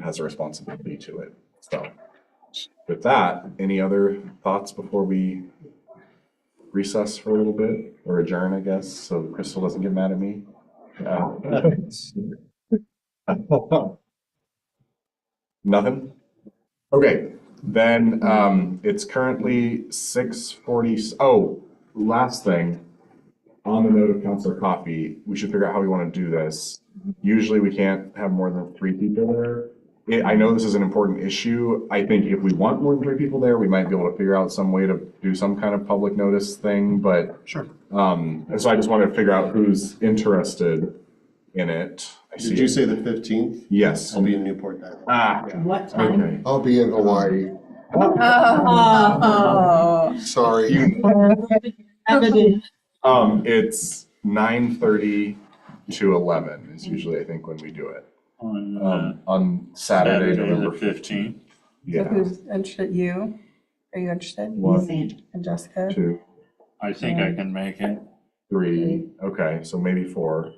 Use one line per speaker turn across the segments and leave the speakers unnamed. has a responsibility to it. So with that, any other thoughts before we recess for a little bit or adjourn, I guess, so Crystal doesn't get mad at me? Uh, Nothing? Okay, then um, it's currently six forty. Oh, last thing. On the note of Counselor Coffee, we should figure out how we want to do this. Usually we can't have more than three people there. I- I know this is an important issue. I think if we want more than three people there, we might be able to figure out some way to do some kind of public notice thing, but.
Sure.
Um, and so I just wanted to figure out who's interested in it. I see
Did you
it.
say the fifteenth?
Yes.
I'll be in Newport Island.
Ah,
What time?
okay.
I'll be in Hawaii,
Oh.
sorry.
Um, it's nine thirty to eleven is usually, I think, when we do it.
on uh,
Um, on Saturday,
the
November fifteenth.
15th.
So
Yeah,
who's interested, you? Are you interested?
One.
And Jessica?
two,
I think
Mm-hmm.
I can make it.
three, okay, so maybe four.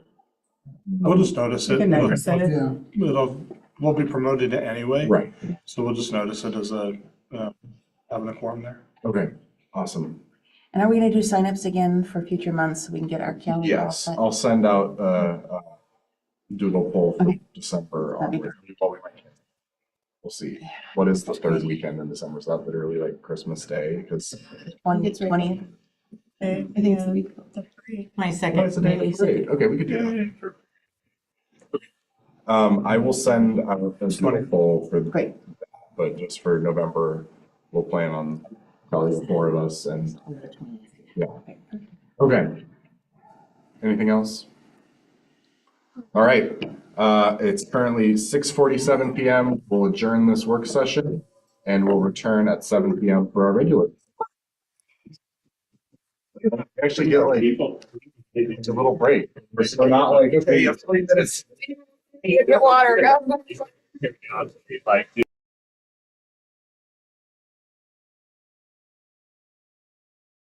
We'll just notice
You
it.
can notice it.
It'll- It'll, we'll be promoted to anyway.
Right,
So we'll just notice it as a, uh, having a quorum there.
okay, awesome.
And are we gonna do signups again for future months so we can get our calendar? all
Yes,
set?
I'll send out uh, a doodle poll for
Okay.
December.
That'd be
onward. Well, we might cancel. We'll see. What is the third weekend in December? Is that literally like Christmas Day? Because
One,
It's right.
twenty,
I
think it's the week of the parade.
my
Oh, it's
second,
the day of the
maybe, so
parade. Okay, we could do that. Um, I will send out a doodle poll for, the-
Great.
but just for November, we'll plan on probably the four of us and, yeah. Okay. Anything else? All right, uh, it's currently six forty-seven PM. We'll adjourn this work session and we'll return at seven PM for our regular. Actually get like
People.
it's a little break. We're still not like, okay, you have three minutes.
Get water, go.
Like